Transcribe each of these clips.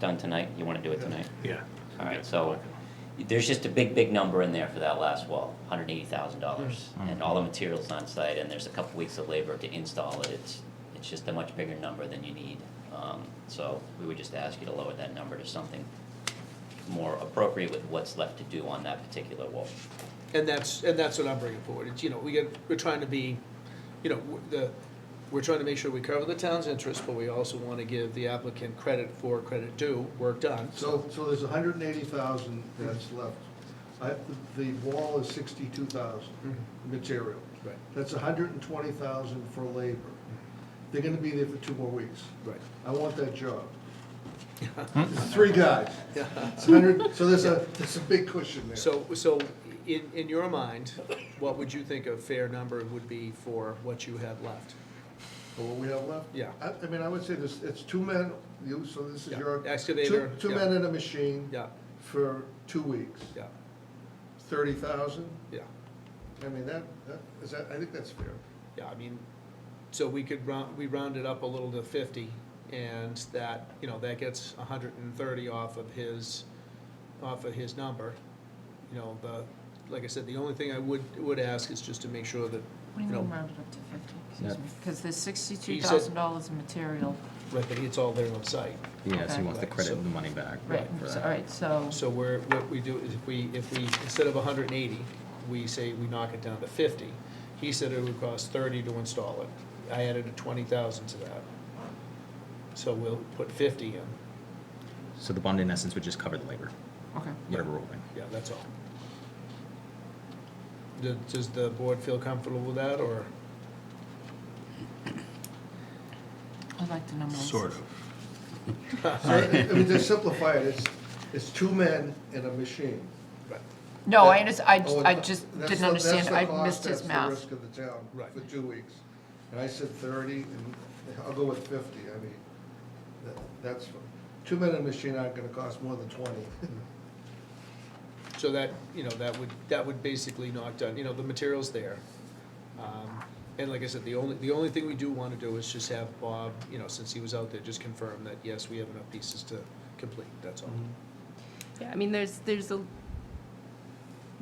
done tonight, you wanna do it tonight? Yeah. All right, so there's just a big, big number in there for that last wall, hundred and eighty thousand dollars. Hmm. And all the materials on site, and there's a couple weeks of labor to install it, it's, it's just a much bigger number than you need. Um, so we would just ask you to lower that number to something more appropriate with what's left to do on that particular wall. And that's, and that's what I'm bringing forward, it's, you know, we get, we're trying to be, you know, w- the, we're trying to make sure we cover the town's interest, but we also wanna give the applicant credit for credit due, work done. So, so there's hundred and eighty thousand that's left. I, the wall is sixty-two thousand material. Mm-hmm. Right, That's hundred and twenty thousand for labor. They're gonna be there for two more weeks. right. I want that job. Three guys. It's hundred, so there's a, there's a big cushion there. So, so in, in your mind, what would you think a fair number would be for what you have left? For what we have left? Yeah. I, I mean, I would say this, it's two men, you, so this is Yeah. your. Excavator, Two, two yeah. men and a machine. Yeah, For two weeks. yeah, Thirty thousand? yeah, I mean, that, that, is that, I think that's fair. yeah, I mean, so we could round, we rounded up a little to fifty, and that, you know, that gets hundred and thirty off of his, off of his number. You know, the, like I said, the only thing I would, would ask is just to make sure that, What do you you know, mean rounded up to fifty, Yeah. excuse me, because there's sixty-two He thousand said- dollars in material, right, that it's all there on site. Yeah, so Okay. he wants the credit and the money back. right, for so- that. all right, so, So we're, what we do is if we, if we, instead of hundred and eighty, we say we knock it down to fifty. He said it would cost thirty to install it. I added a twenty thousand to that. So we'll put fifty in. So the bond in essence would just cover the labor, okay. whatever we're holding. Yeah, that's all. Do- Does the board feel comfortable with that, or? I like the numbers. of. So, I mean, to simplify it, it's, it's two men and a machine. Right. No, I understand, I, Oh, j- I and just that's didn't the- that's understand, the I cost, missed his That's math. the risk of the town Right. for two weeks. And I said thirty, and I'll go with fifty, I mean, that- that's, two men and a machine aren't gonna cost more than twenty. So that, you know, that would, that would basically knock down, you know, the material's there. Um, And like I said, the only, the only thing we do want to do is just have Bob, you know, since he was out there, just confirm that, yes, we have enough pieces to complete, that's all. Mm-hmm. Yeah, I mean, there's, there's a,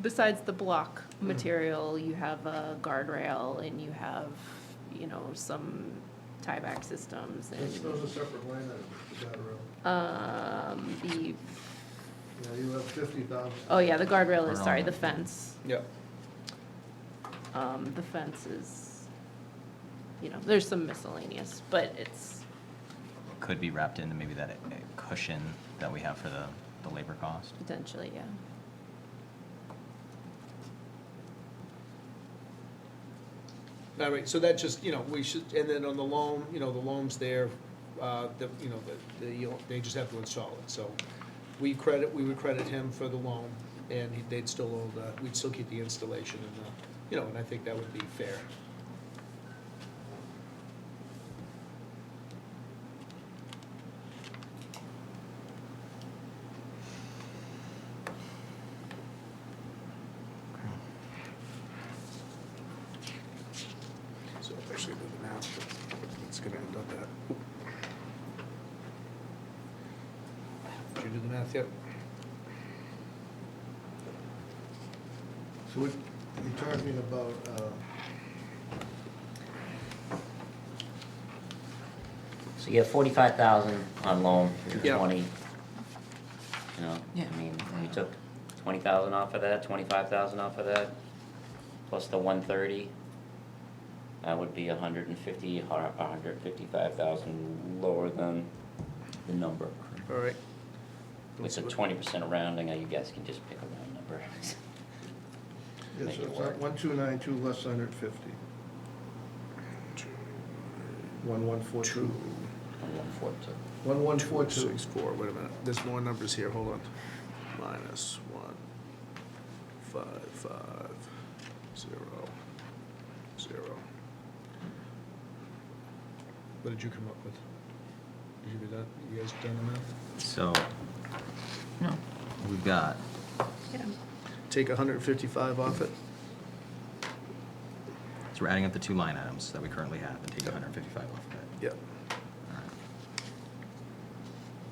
besides the block material, you have a guardrail and you have, you know, some tieback systems Those those are and, separate line items, is that real? um, the, Yeah, you have fifty thousand. oh yeah, the guardrail is, Around sorry, that. the fence. Yeah, Um, the fence is, you know, there's some miscellaneous, but it's, Could be wrapped into maybe that uh, cushion that we have for the, the labor cost. Potentially, yeah. all right, so that just, you know, we should, and then on the loan, you know, the loan's there, uh, the, you know, the, the, you'll- they just have to install it, so. We credit, we would credit him for the loan, and he- they'd still, owe the- we'd still keep the installation and, the- you know, and I think that would be fair. So if I actually do the math, it's gonna end up at. Did you do the math yet? So what, you're talking about, uh, So you have forty-five thousand on loan, you Yeah. have twenty. You know, Yeah. I mean, we took twenty thousand off of that, twenty-five thousand off of that, plus the one thirty. That would be a hundred and fifty, a hundred and fifty-five thousand lower than the number. All right. It's a twenty percent rounding, you guys can just pick a round number. it's, Make it it's work. one two nine two less hundred fifty. One one four two. One four two. One one Four, four two. six, four, wait a minute, there's more numbers here, hold on. Minus one, five, five, zero, zero. What did you come up with? Did you do that, you guys done the math? So No, we've got, Take hundred and fifty-five off it? so we're adding up the two line items that we currently have and take 155 off of it. Yep.